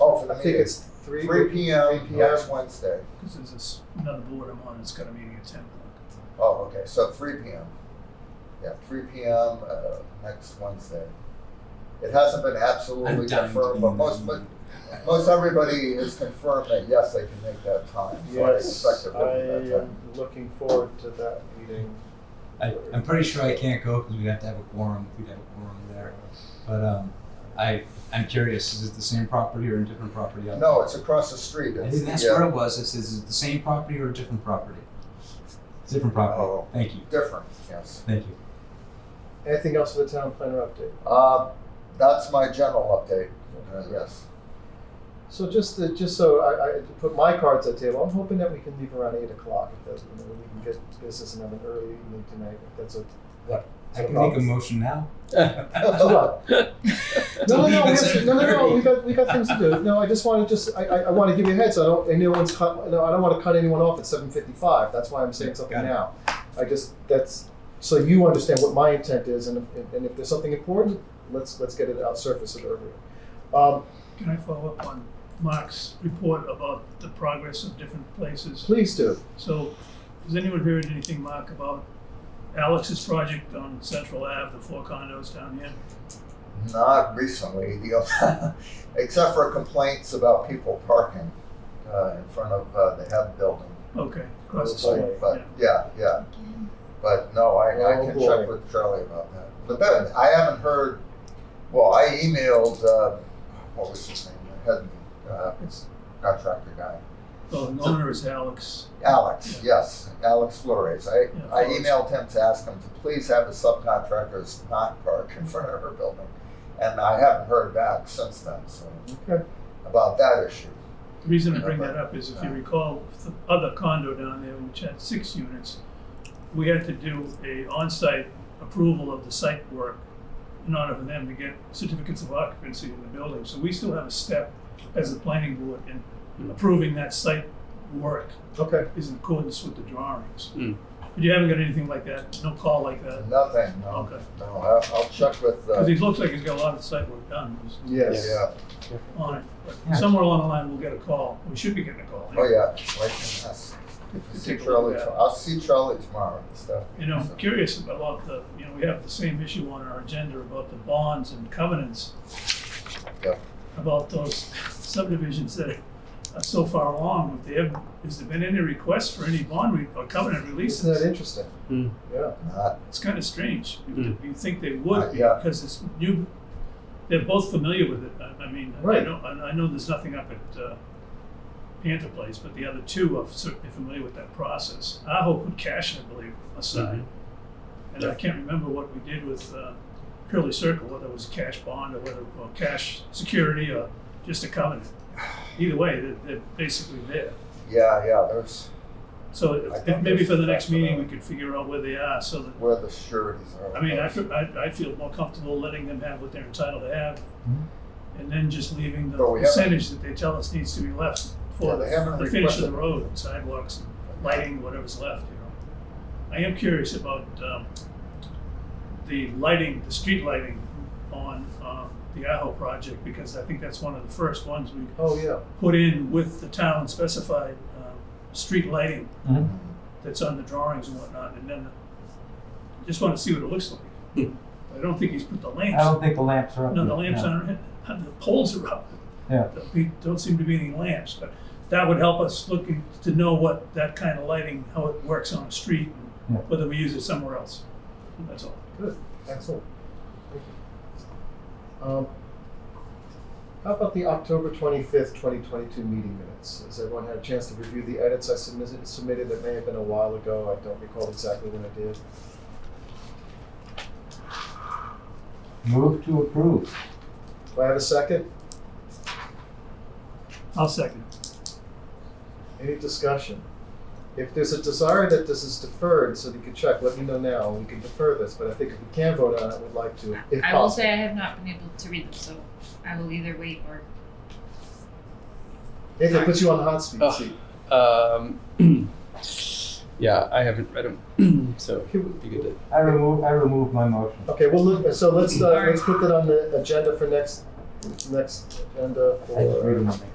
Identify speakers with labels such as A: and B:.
A: call Oh, for the
B: I think
A: meeting.
B: it's three.
A: Three P M,
B: three
A: yes, Wednesday.
C: This is this, another board I'm on, it's got a meeting at ten o'clock.
A: Oh, okay, so three P M. Yeah, three P M, uh, next Wednesday. It hasn't been absolutely
D: I'm dying to be
A: confirmed,
D: in
A: but
D: that
A: most, but
D: meeting.
A: most everybody has confirmed that, yes, they can make that time. So I expect
B: Yes,
A: it
B: I
A: will be that time.
B: am looking forward to that meeting.
D: I, I'm pretty sure I can't go because we'd have to have a quorum. We'd have a quorum there. But um, I, I'm curious, is it the same property or a different property? out
A: No, it's across the street.
D: there? I
A: It's
D: think that's
A: the, uh,
D: where it was. It says, is it the same property or a different property? Different property.
A: Oh.
D: Thank you.
A: Different, yes.
D: Thank you.
B: Anything else for the town planner update?
A: Uh, that's my general update, Uh, yes.
B: So just the, just so I, I to put my cards at the table, I'm hoping that we can leave around eight o'clock, if that, you know, we can get business and have an early evening tonight, if that's a.
D: I can make a motion now.
B: So what? No, no, no,
D: Leave
B: we
D: us
B: have,
D: at
B: no, no, no,
D: 30.
B: we got, we got things to do, no, I just wanna just, I, I, I wanna give you a heads, I don't, and no one's cut, no, I don't wanna cut anyone off at seven fifty-five, that's why I'm saying something
D: Got it.
B: now. I just, that's, so you understand what my intent is, and if, and if there's something important, let's, let's get it out, surface it earlier. Um,
C: Can I follow up on Mark's report about the progress of different places?
B: please do.
C: So, has anyone heard anything, Mark, about Alex's project on Central Ave, the four condos down here?
A: Not recently, the, uh, except for complaints about people parking, uh, in front of, uh, the head building.
C: Okay, across the
B: Oh, boy.
C: street.
A: But, yeah, yeah. But no, I, I
B: Oh,
A: can
B: boy.
A: check with Charlie about that. But then, I haven't heard, well, I emailed, uh, what was his name, the head, uh,
C: It's,
A: contractor guy.
C: well, the owner is Alex.
A: Alex, yes, Alex Flores. I,
C: Yeah,
A: I
C: Flores.
A: emailed him to ask him to please have the subcontractors not park in front of her building. And I haven't heard back since then, so,
B: Okay.
A: about that issue.
C: The reason I bring that up is if you recall, the other condo down there, which had six units, we had to do a on-site approval of the site work in order for them to get certificates of occupancy in the building. So we still have a step as the planning board in approving that site work
B: Okay.
C: is in accordance with the drawings.
E: Mm.
C: But you haven't got anything like that, no call like that?
A: Nothing, no,
C: Okay.
A: no, I'll, I'll check with, uh,
C: Because he looks like he's got a lot of site work done, he's
B: Yes.
A: yeah,
C: on it. But
D: Yeah.
C: somewhere along the line, we'll get a call. We should be getting a call.
A: oh, yeah. Wait, yes. See Charlie, to- I'll see Charlie tomorrow and stuff.
C: You know, I'm
A: So-
C: curious about the, you know, we have the same issue on our agenda about the bonds and covenants.
A: Yep.
C: About those subdivisions that are so far along, If they have, has there been any request for any bond re- or covenant
B: Isn't that
C: releases?
B: interesting?
E: Hmm.
B: Yeah.
A: Not-
C: It's kind of strange, you
E: Mm.
C: you think they
A: Uh,
C: would, be,
A: yeah.
C: because it's new, they're both familiar with it, I, I mean, I
B: Right.
C: know, I I know there's nothing up at, uh, Panther Place, but the other two are certainly familiar with that process. Aho put cash, I believe, aside. And I can't remember what we did with uh, Curly Circle, whether it was cash bond or whether, or cash security or just a covenant. Either way, they're, they're basically there.
A: Yeah, yeah, there's
C: So
A: I
C: if-
A: think
C: if maybe for the
A: that's-
C: next meeting, we could figure out where they are so that,
A: where the sureties are.
C: I mean, I, fe- I, I feel more comfortable letting them have what they're entitled to have.
D: Mhm.
C: And then just leaving the
A: But we haven't-
C: percentage that they tell us needs to be left
A: Yeah,
C: for
A: they haven't
C: the finish
A: requested.
C: of the road, and sidewalks, and lighting, whatever's left, you know. I am curious about, um, the lighting, the street lighting on, um, the Aho project, because I think that's one of the first ones we
B: Oh, yeah.
C: put in with the town specified, um, street lighting
A: Mm.
D: Mhm.
C: that's on the drawings and whatnot, and then just wanna see what it looks like. I don't think he's put the
D: I
C: lamps,
D: don't think the lamps are up.
C: no, the
D: yet,
C: lamps aren't, the poles are up.
D: Yeah.
C: There don't seem to be any lamps, but that would help us looking to know what that kind of lighting, how it works on a street,
D: Yeah.
C: and whether we use it somewhere else. That's all.
B: Good. Excellent. Thank you. Um, how about the October 25th, 2022 meeting minutes? Has everyone had a chance to review the edits I submitted, submitted that may have been a while ago? I don't recall exactly when I did.
D: no. Move to approve.
B: Do I have a second?
C: I'll second.
B: Any discussion? If there's a desire that this is deferred so that you can check, let me know now. We can defer this, but I think if we can vote on it, we'd like to, if
F: I will
B: possible.
F: say I have not been able to read them, so I will either wait or
B: Nathan, put you on the hot seat.
E: Ugh.
B: seat.
E: Um, yeah, I haven't read them, so
B: Okay, we-
E: it'd be good to.
D: I remove, I remove my motion.
B: Okay, well, look, so let's, uh, let's put that on the agenda for next next agenda for.